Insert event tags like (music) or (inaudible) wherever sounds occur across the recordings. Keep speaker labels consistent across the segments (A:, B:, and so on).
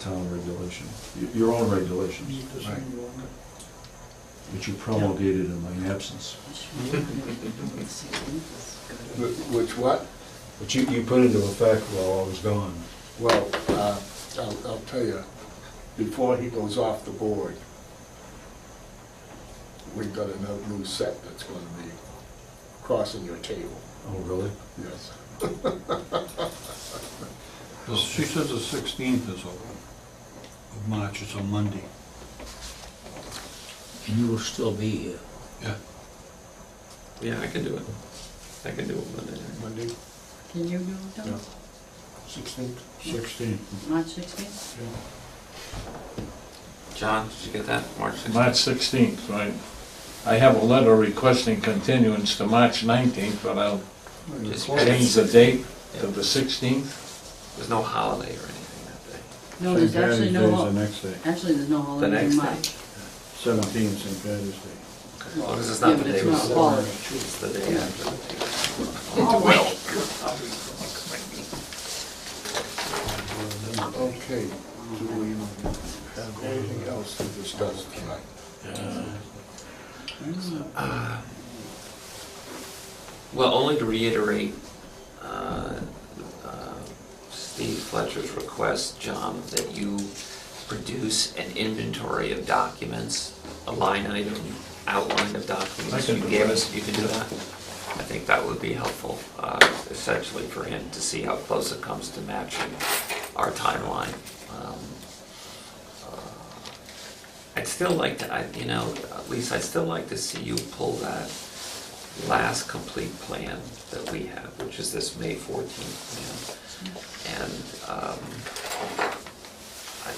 A: town regulation, y- your own regulations,
B: Need to
C: Right.
B: send you on
A: which you promulgated in my absence.
C: Wh- Which what?
A: But you, you put into effect while I was gone.
C: Well, uh, I'll, I'll tell you, before he goes off the board, we've got another new set that's gonna be crossing your table,
A: Oh, really?
C: yes.
D: Well, She says the sixteenth is open of March, it's a Monday.
E: And you will still be here.
D: Yeah.
F: Yeah, I can do it. I can do it Monday night.
C: Monday,
G: Can you do it
C: Yeah.
G: on
C: sixteenth?
A: Sixteen.
G: March sixteenth?
F: John, did you get that? March 16th?
H: March 16th, right? I have a letter requesting continuance to March 19th, but I'll
F: Just-
H: change the date to the 16th.
F: There's no holiday or anything that day.
G: No, there's actually no,
A: The
G: hol-
A: next day,
G: actually, there's no
F: The
G: holiday
F: next
G: in March.
F: day?
A: seventeen, St. Patty's Day.
F: As long as it's not the
G: Yeah, but
F: day
G: it's
F: we
G: not a holiday.
F: It's the day after. (laughs)
C: Okay, do we have anything else to discuss tonight?
F: Well, only to reiterate, uh, uh, Steve Fletcher's request, John, that you produce an inventory of documents, a line item outline of
H: I
F: documents
H: can
F: you
H: do
F: gave
H: that.
F: us, you can do that? I think that would be helpful, uh, essentially for him to see how close it comes to matching our timeline. Um, uh, I'd still like to, I, you know, at least I'd still like to see you pull that last complete plan that we have, which is this May fourteenth plan. And, um,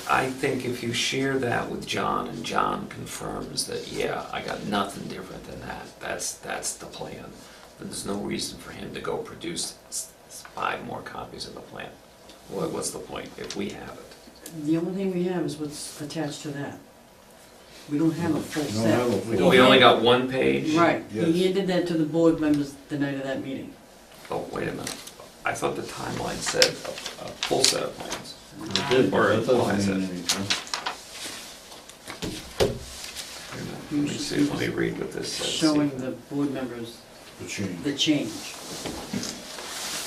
F: I, I think if you share that with John and John confirms that, yeah, I got nothing different than that, that's, that's the plan, then there's no reason for him to go produce s- s- five more copies of the plan. What, what's the point if we have it?
G: The only thing we have is what's attached to that. We don't have a full
A: You don't have a
G: set.
A: full-
F: We only got one page?
G: Right,
C: Yes.
G: he handed that to the board members the night of that meeting.
F: Oh, wait a minute. I thought the timeline said a, a full set of plans.
A: It did, but
F: Or
A: that
F: implies
A: doesn't mean
F: it.
A: anything.
F: Let me see, let me read what this says.
G: Showing the board members
A: The change.
G: the change.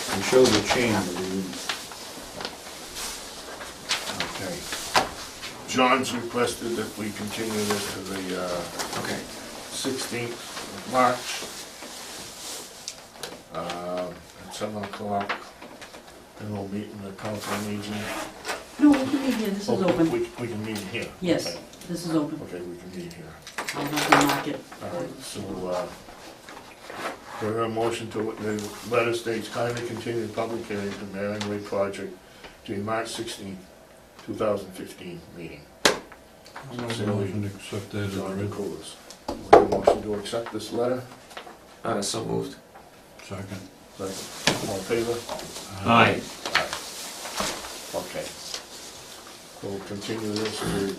A: We showed the change, but we didn't.
C: Okay. John's requested that we continue this to the, uh,
F: Okay,
C: sixteenth of March. um, At seven o'clock, and we'll meet in the council meeting.
G: No, we can meet here, this is
C: Oh, We,
G: open.
C: we can meet here.
G: Yes,
C: Okay.
G: this is open.
C: Okay, we can meet here.
G: I'll have to mark it.
C: All right, so, uh, do I hear a motion to, the letter states kindly continue the public hearing for Marion Way project to the March sixteenth, two thousand fifteen meeting.
D: I'm not going to accept that as
C: John
D: written.
C: Nicholas. Do I hear a motion to accept this letter?
F: uh, so moved.
D: Second.
C: Second. All in favor?
H: Aye.
C: Okay. We'll continue this to,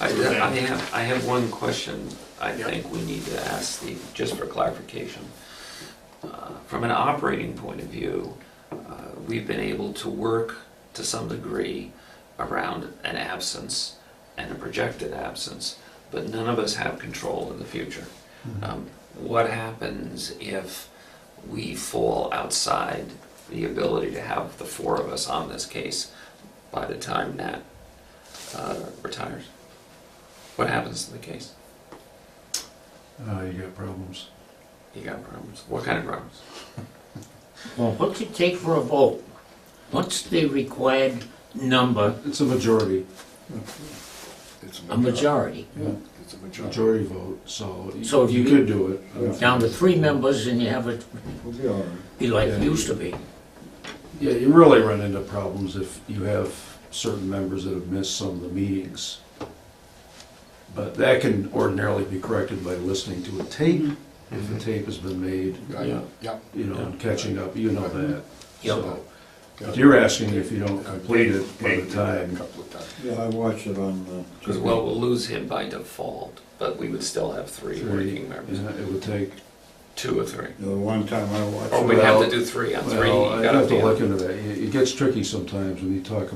F: I, I have, I have one question I
C: Yep.
F: think we need to ask Steve, just for clarification. Uh, From an operating point of view, uh, we've been able to work to some degree around an absence and a projected absence, but none of us have control in the future. Um, What happens if we fall outside the ability to have the four of us on this case by the time Nat uh, retires? What happens to the case?
A: Uh, you got problems.
F: You got problems. What kind of problems?
E: Well, what's it take for a vote? What's the required number,
A: It's a majority,
C: it's
E: a majority?
C: It's a majority.
A: majority vote, so you
E: So if
A: you
E: you-
A: could do it. I don't
E: Down to
A: think-
E: three members and you have it
A: We'll be all right.
E: be like it used to be.
A: Yeah, you really run into problems if you have certain members that have missed some of the meetings. But that can ordinarily be corrected by listening to a tape, if the tape has been made,
C: Right, Yep.
A: you know, and catching up, you know that.
E: Yep.
A: So, But you're asking if you don't complete it by the
C: A
A: time,
C: couple of times.
I: Yeah, I watched it on uh, the.
F: Because, well, we'll lose him by default, but we would still have three
A: three,
F: working members,
A: yeah, it would take,
F: two or three.
I: The one time I watched.
F: Or
I: it.
F: we'd have to
A: Well,
F: do three on three.
A: well,
F: you
A: I'd
F: gotta
A: have to
F: be on-
A: look into that. It it gets tricky sometimes when you talk